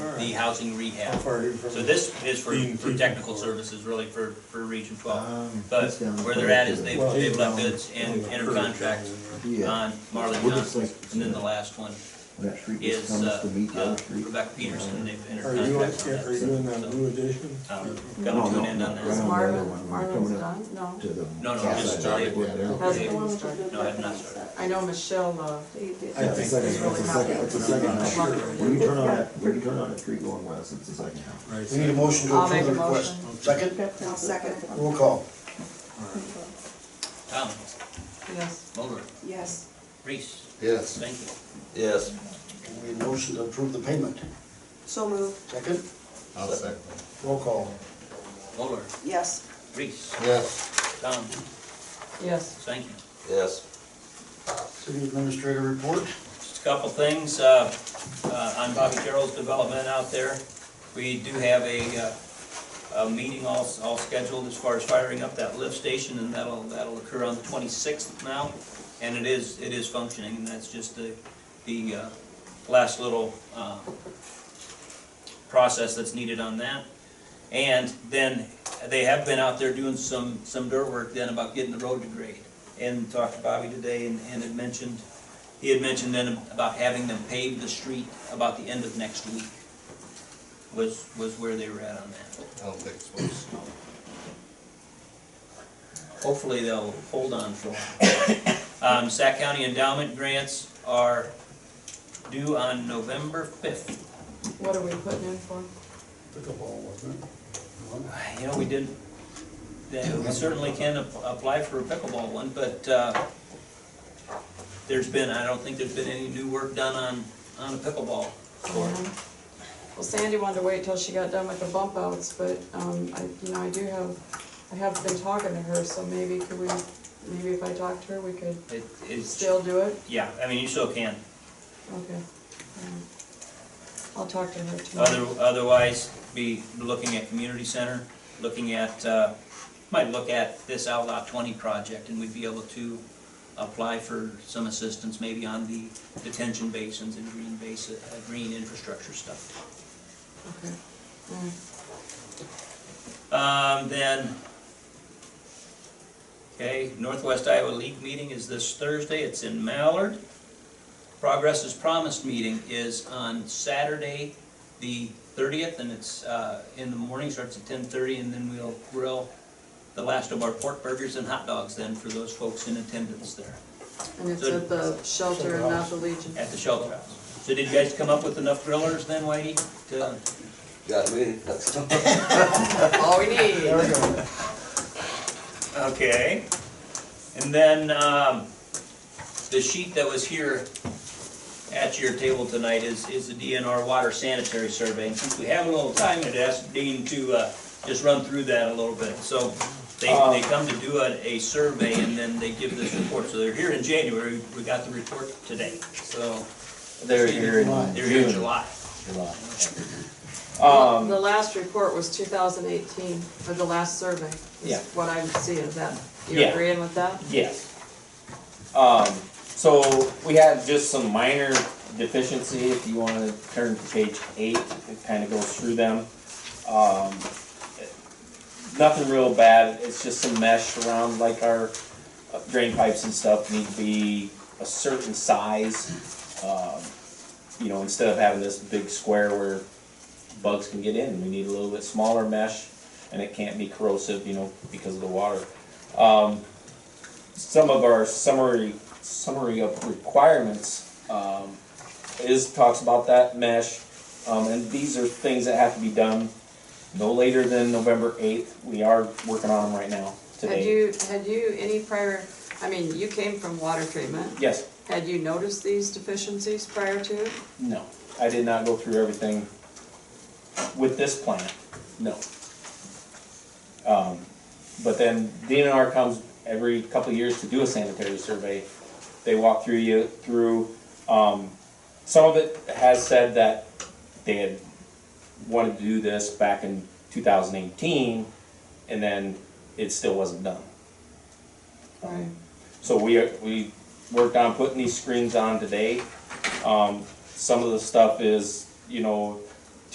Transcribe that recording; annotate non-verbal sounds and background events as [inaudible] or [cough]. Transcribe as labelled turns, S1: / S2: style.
S1: the housing rehab.
S2: For- for-
S1: So this is for,
S3: Being-
S1: for technical services, really, for, for Region Twelve.
S4: Um,
S1: But
S4: it's down
S1: where
S4: the
S1: they're at
S4: back of
S1: is
S4: the-
S1: they've,
S2: Well,
S1: they've let
S4: down-
S1: bids and enter contracts
S4: Yeah,
S1: on Marlon
S4: We're just
S1: Johnson.
S4: like-
S1: And then the last one
S4: that street just
S1: is,
S4: comes
S1: uh,
S4: to meet the
S1: uh,
S4: other street.
S1: Rebecca Peterson, they've
S2: Are
S1: entered
S2: you,
S1: contracts on
S2: are
S1: that.
S2: you in that new edition?
S1: Um,
S4: No,
S1: Coming to an
S4: no,
S1: end on
S4: no,
S1: that.
S4: right.
S5: Is
S4: the
S5: Marvin,
S4: other one, we're
S5: Marvin's
S4: coming up
S5: done? No.
S4: To the.
S1: No, no,
S4: south
S1: just
S4: side.
S1: started.
S5: How's the
S1: Yeah.
S5: one with the-
S1: No, I have not started.
S5: I know Michelle, uh,
S2: I
S4: That's the
S2: think-
S4: second,
S5: is
S4: that's the
S5: really happy.
S4: second, that's the second
S5: I
S4: house.
S5: love her.
S4: When you turn on that, when you turn on that street going west, it's the second house.
S6: We need a motion to
S5: I'll
S6: approve the
S5: make a
S6: request. Second,
S5: I'll second.
S6: roll call.
S1: Tom,
S5: Yes.
S1: Mulder,
S5: Yes.
S1: Reese,
S6: Yes.
S1: thank you.
S7: Yes.
S6: We need a motion to approve the payment.
S5: So moved.
S6: Second,
S7: I'll second.
S6: roll call.
S1: Mulder,
S5: Yes.
S1: Reese,
S7: Yes.
S1: Tom,
S5: Yes.
S1: thank you.
S7: Yes.
S6: City Administrator report.
S1: Just a couple things, uh, uh, on Bobby Carroll's development out there. We do have a, uh, a meeting all, all scheduled as far as firing up that lift station, and that'll, that'll occur on the twenty-sixth now. And it is, it is functioning, and that's just the, the, uh, last little, uh, process that's needed on that. And then, they have been out there doing some, some dirt work then about getting the road to grade. And talked to Bobby today, and, and had mentioned he had mentioned then about having them pave the street about the end of next week, was, was where they were at on that.
S7: I don't think it's supposed to.
S1: Hopefully they'll hold on for a while. Um, Sac County endowment grants are due on November fifth.
S5: What are we putting in for?
S6: Pickleball, wasn't it?
S1: You know, we didn't, yeah, we certainly can ap- apply for a pickleball one, but, uh, there's been, I don't think there's been any new work done on, on a pickleball court.
S5: Well, Sandy wanted to wait till she got done with the bump outs, but, um, I, you know, I do have, I have been talking to her, so maybe could we, maybe if I talked to her, we could
S1: It, it's,
S5: still do it?
S1: yeah, I mean, you still can.
S5: Okay. Um, I'll talk to her
S1: Other,
S5: tomorrow.
S1: otherwise, be looking at community center, looking at, uh, might look at this Outlaw twenty project, and we'd be able to apply for some assistance maybe on the detention basins and green basin, uh, green infrastructure stuff.
S5: Okay. All right.
S1: Um, then, okay, Northwest Iowa League meeting is this Thursday, it's in Mallard. Progress is Promised meeting is on Saturday, the thirtieth, and it's, uh, in the morning, starts at ten thirty, and then we'll grill the last of our pork burgers and hot dogs then for those folks in attendance there
S5: And it's
S1: So-
S5: at the shelter and not the Legion.
S1: at the shelter house. So did you guys come up with enough grillers then, Whitey, to?
S7: Got me, [laughs] that's.
S5: All we need.
S6: There we go.
S1: Okay. And then, um, the sheet that was here at your table tonight is, is the DNR Water Sanitary Survey. And since we have a little time, I'd ask Dean to, uh, just run through that a little bit. So they,
S8: Uh,
S1: they come to do a, a survey and then they give this report. So they're here in January, we got the report today, so.
S8: They're here in
S1: They're here in
S8: June.
S1: July.
S8: July. Um,
S5: The last report was two thousand eighteen, or the last survey. is
S8: Yeah.
S5: What I'm seeing, is that, you
S8: Yeah.
S5: agreeing with that?
S8: Yes. Um, so we had just some minor deficiency, if you wanna turn to page eight, it kinda goes through them. Um, nothing real bad, it's just some mesh around like our uh, drain pipes and stuff need to be a certain size. Um, You know, instead of having this big square where bugs can get in, we need a little bit smaller mesh and it can't be corrosive, you know, because of the water. Um, some of our summary, summary of requirements, um, is, talks about that mesh. Um, and these are things that have to be done no later than November eighth. We are working on them right now,
S5: Had
S8: today.
S5: you, had you any prior, I mean, you came from water treatment.
S8: Yes,
S5: Had you noticed these deficiencies prior to it?
S8: no, I did not go through everything with this plan, no. Um, but then DNR comes every couple of years to do a sanitary survey. They walk through you, through, um, some of it has said that they had wanted to do this back in two thousand eighteen, and then it still wasn't done. Um,
S5: Right.
S8: So we, are- we worked on putting these screens on today. Um, some of the stuff is, you know,